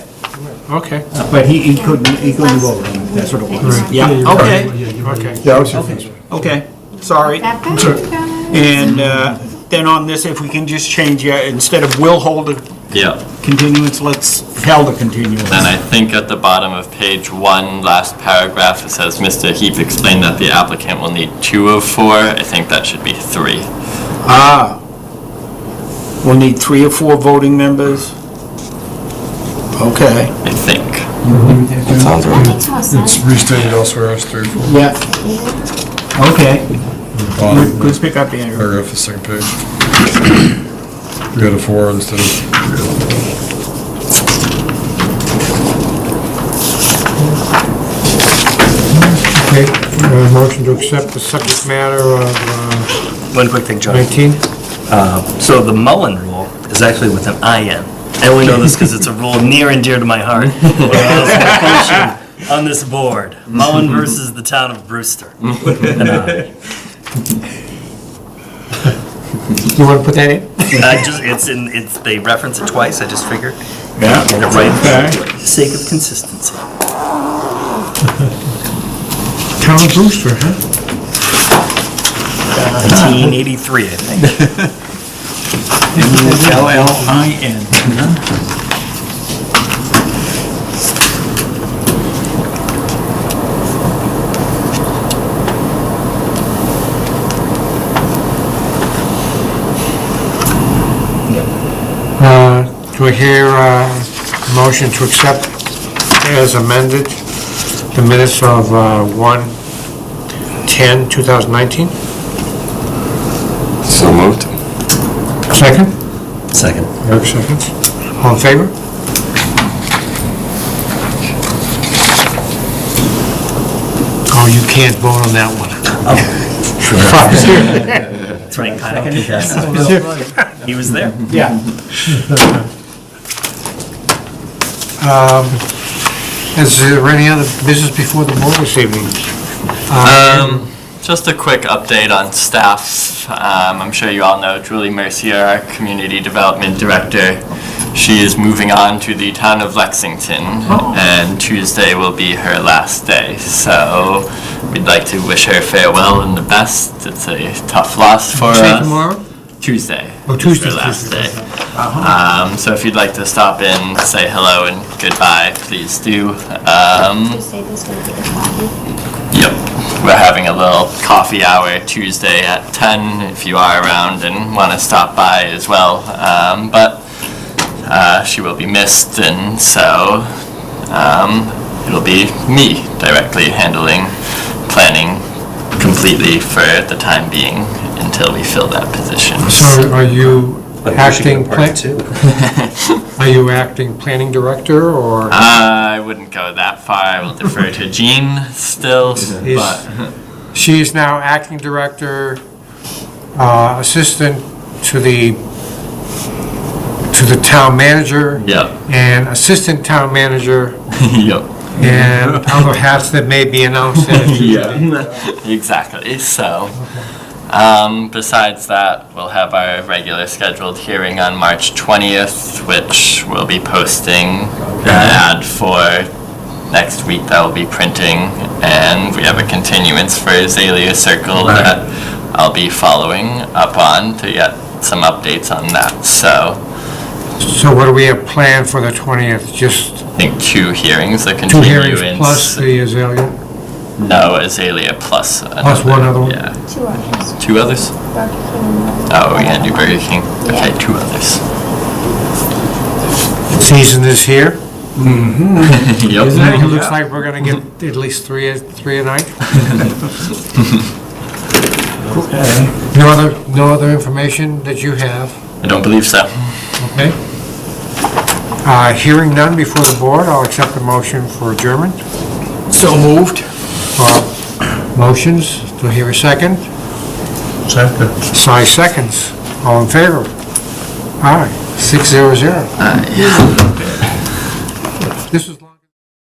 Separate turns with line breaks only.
Okay,
But he, he couldn't, he couldn't vote on it, that's what it was.
Right.
Yeah,
Yeah, you're
okay,
right. okay.
Yeah, I was your first.
okay, okay, sorry.
That bad,
Sure.
guys?
And uh, then on this, if we can just change, uh, instead of will hold a
Yeah,
continuance, let's held a continuance.
and I think at the bottom of page one, last paragraph, it says, Mr. Heap explained that the applicant will need two of four. I think that should be three.
Ah. We'll need three or four voting members? Okay,
I think.
That makes more
It's
sense.
restated elsewhere as three, four,
yeah, okay.
bottom,
Let's pick up Andrew.
paragraph, the second page. We got a four instead of,
Okay, uh, motion to accept the subject matter of uh,
One quick thing, John.
19.
So the Mullen rule is actually with an IN. I only know this because it's a rule near and dear to my heart. when I was a function On this board, Mullen versus the town of Brewster. An I.
You want to put that in?
I just, it's in, it's, they reference it twice, I just figured,
Yeah,
get it right,
okay.
for the sake of consistency.
Town of Brewster, huh?
1983, I think.
L-L-I-N.
Uh, Do I hear uh, a motion to accept as amended the minutes of uh, 1/10/2019?
So moved.
Second?
Second.
Eric seconds. All in favor? Oh, you can't vote on that one.
That's right, Kyle. Yes. He was there.
Yeah.
Is there any other business before the board this evening?
Um, just a quick update on staff. Um, I'm sure you all know Julie Mercier, our Community Development Director. She is moving on to the town of Lexington,
Oh.
and Tuesday will be her last day. So we'd like to wish her farewell and the best. It's a tough loss for
Say
us.
tomorrow?
Tuesday.
Oh,
is
Tuesday,
Her last
Tuesday, Uh-huh.
day. Um, so if you'd like to stop in, say hello and goodbye, please do. Um,
You say this would be the problem.
Yep. We're having a little coffee hour Tuesday at 10 if you are around and want to stop by as well. Um, but uh, she will be missed, and so um, it'll be me directly handling planning completely for the time being until we fill that position.
So are you acting, plan-
too.
are you acting planning director or?
I wouldn't go that far. I will defer to Jean still,
He's-
but.
She is now acting director, uh, assistant to the, to the town manager
Yep.
and assistant town manager
yep.
and other hats that may be announced at a future
Yeah. exactly. So, um, besides that, we'll have our regular scheduled hearing on March 20th, which we'll be posting an
Mm-hmm.
ad for next week that will be printing. And we have a continuance for Azalea Circle that I'll be following up on to get some updates on that. So,
So what do we have planned for the 20th? Just
I think two hearings, a
two
continuance.
hearings plus the azalea?
no, Azalea plus.
Plus one other one?
Yeah.
Two others.
Two others?
Burger King and one-
Oh, we're gonna do Burger King. Okay,
Yeah.
two others.
Season is here.
yep.
It looks like we're going to get at least three, a- three a night. No other, no other information that you have?
I don't believe so.
Okay. Uh, Hearing none before the board, I'll accept the motion for adjournment.
So moved.
Uh, Motions, do I hear a second?
second.
Five seconds. All in favor? Aye, six zero zero.
Uh, yeah.